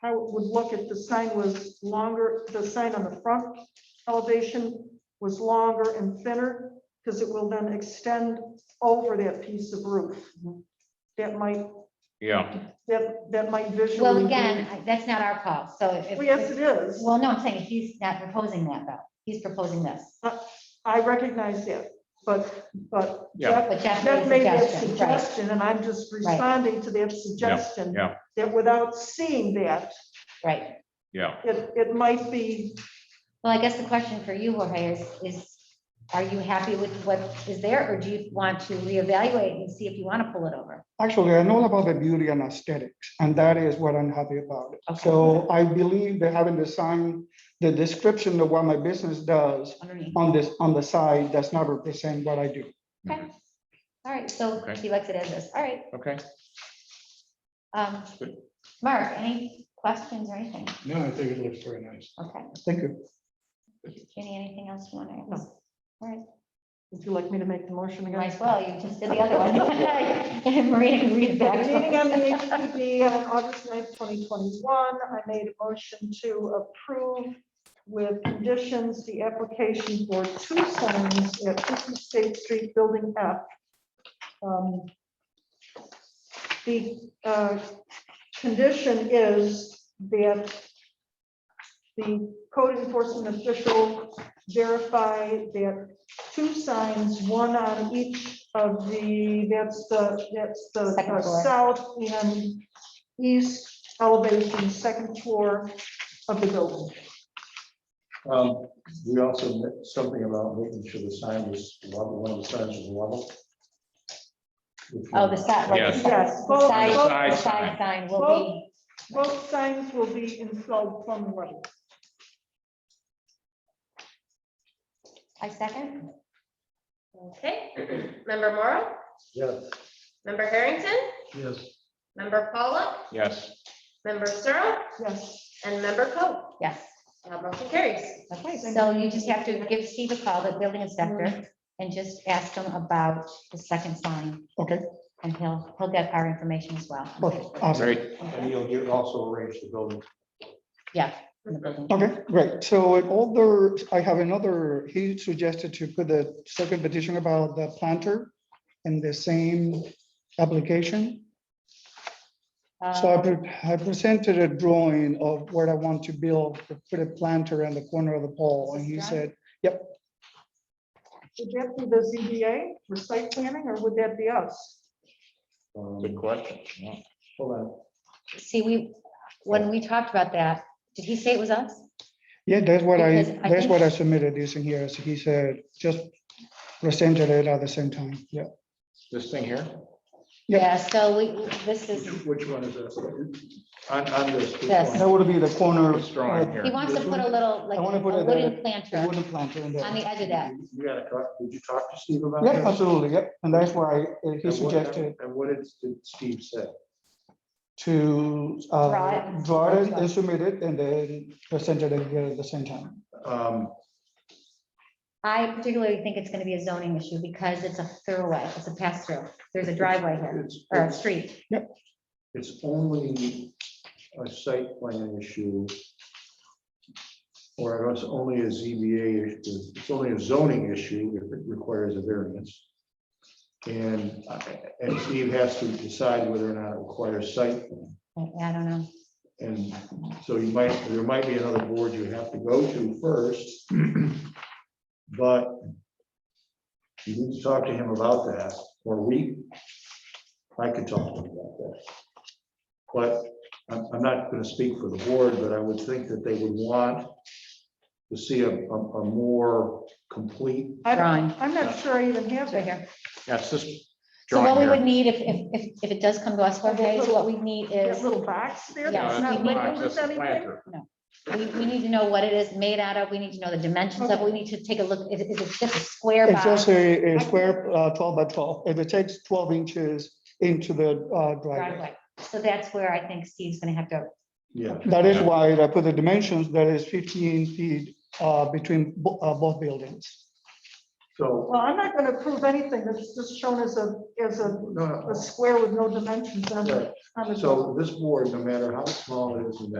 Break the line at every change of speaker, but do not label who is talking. how it would look if the sign was longer, the sign on the front elevation was longer and thinner, because it will then extend over that piece of roof.
Mm-hmm.
That might,
Yeah,
that, that might visually.
Well,
be-
again, I- that's not our call, so if.
Well, Yes, it is.
Well, no, I'm saying he's not proposing that though. He's proposing this.
I recognize that, but, but
Yeah.
Jeff
But Jeff made
Jeff
a
made that
suggestion, right.
suggestion, and I'm just responding to that suggestion.
yeah.
That without seeing that,
Right.
yeah.
it, it might be,
Well, I guess the question for you, Jorge, is, is, are you happy with what is there, or do you want to reevaluate and see if you want to pull it over?
Actually, I'm all about the beauty and aesthetics, and that is what I'm happy about.
Okay.
So I believe that having the sign, the description of what my business does
Underneath.
on this, on the side, does not represent what I do.
Okay. All right, so
Okay.
he likes it as this. All right.
Okay,
Um,
Good.
Mark, any questions or anything?
No, I think it looks very nice.
Okay.
Thank you.
Jenny, anything else you want to ask? All right.
would you like me to make the motion again?
Might as well, you just did the other one. And Marina can read it
At the meeting on the
back.
HPD on August 9th, 2021, I made a motion to approve with conditions the application for two signs at 50 State Street, Building F. Um, The uh, condition is that the code enforcement official verify that two signs, one on each of the, that's the, that's the
Second
uh,
floor.
south and east elevation, second floor of the building.
Um, we also meant something about making sure the sign was level, one of the signs was level. If you-
Oh, the side, like the
Yes.
side,
Yes,
the
both,
side,
both,
Side
the side
sign.
sign will
both signs will be installed from level.
be, I second?
Okay, member Morrow,
Yes,
member Harrington,
Yes.
member Paula,
yes.
member Searle,
Yes,
and member Coe.
Yes.
Uh, Motion carries.
Okay, so you just have to give Steve a call, the building
Mm-hmm.
inspector, and just ask him about the second sign,
Okay,
and he'll, he'll get our information as well.
okay, awesome.
Great,
and you'll get also arrange the building.
Yeah. in the building.
Okay, great. So in all the, I have another, he suggested to put the second petition about the planter in the same application. So I
Um,
pre- I presented a drawing of where I want to build, put a planter in the corner of the pole, and he
This
said,
would that be the ZBA for site planning, or would that be us?
Um,
good question. yeah.
hold on.
See, we, when we talked about that, did he say it was us?
Yeah, that's what I,
Because I
that's
think-
what I submitted this in here. So he said, just presented it at the same time. Yeah.
This thing here,
Yeah.
Yeah, so we, this is,
Which which one is this? On, on this. which
This.
one?
That would be the corner.
this drawing
uh,
he
here.
wants to
This
put a
one?
little, like,
I wanna
a
put it,
wooden
the
planter
wooden planter in
on
there.
the edge of that.
You gotta talk, did you talk to Steve about
Yeah,
this?
absolutely. Yep. And that's why uh, he
And what-
suggested
And what did Steve say?
to
Draw
uh,
it.
draw it and submit it and then presented it here at the same time.
Um,
I particularly think it's gonna be a zoning issue because it's a throughway, it's a pass-through. There's a driveway here,
it's-
or a street.
It's only a site plan issue. Or it's only a ZBA, issue. it's only a zoning issue if it requires a variance. And, uh, and Steve has to decide whether or not it requires site. plan.
I don't know.
And so you might, there might be another board you have to go to first. But you need to talk to him about that, or we, I could talk to him about that. But I'm, I'm not gonna speak for the board, but I would think that they would want to see a, a, a more complete.
I don't-
Drawing.
I'm not sure I even have
It's right
that.
here.
That's this
So what we
drawing
would
here.
need if, if, if, if it does come to us, Jorge, is what we need
That
is,
little box there,
Yeah,
that's
No,
not
that's
we-
Uh, not-
labeled
that's
as
the
anything?
planter.
we, we need to know what it is made out of. We need to know the dimensions of, it. we need to take a look. Is, is it just a square
It's
box?
just a a square uh, 12 by 12. If it takes 12 inches into the uh, driveway.
driveway? So that's where I think Steve's gonna have to,
Yeah,
That is
Yeah.
why I put the dimensions, that is 15 feet uh, between bo- uh, both buildings.
so,
Well, I'm not gonna prove anything, that's just shown as a, as a,
no,
a square with no dimensions on
no,
Um,
it, on the.
so this board, no matter how small it is, no matter